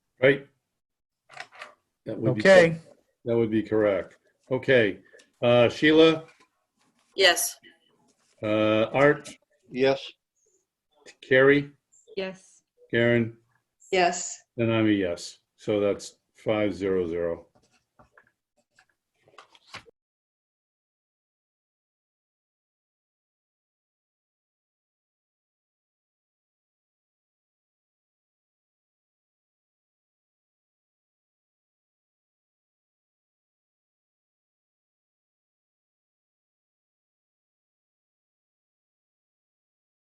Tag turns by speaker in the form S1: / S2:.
S1: Right? That would be-
S2: Okay,
S1: That would be correct. Okay. Uh, Sheila,
S3: Yes.
S1: uh, Art,
S4: Yes,
S1: Carrie,
S5: Yes.
S1: Karen,
S3: Yes.
S1: and I'm a yes. So that's five zero zero.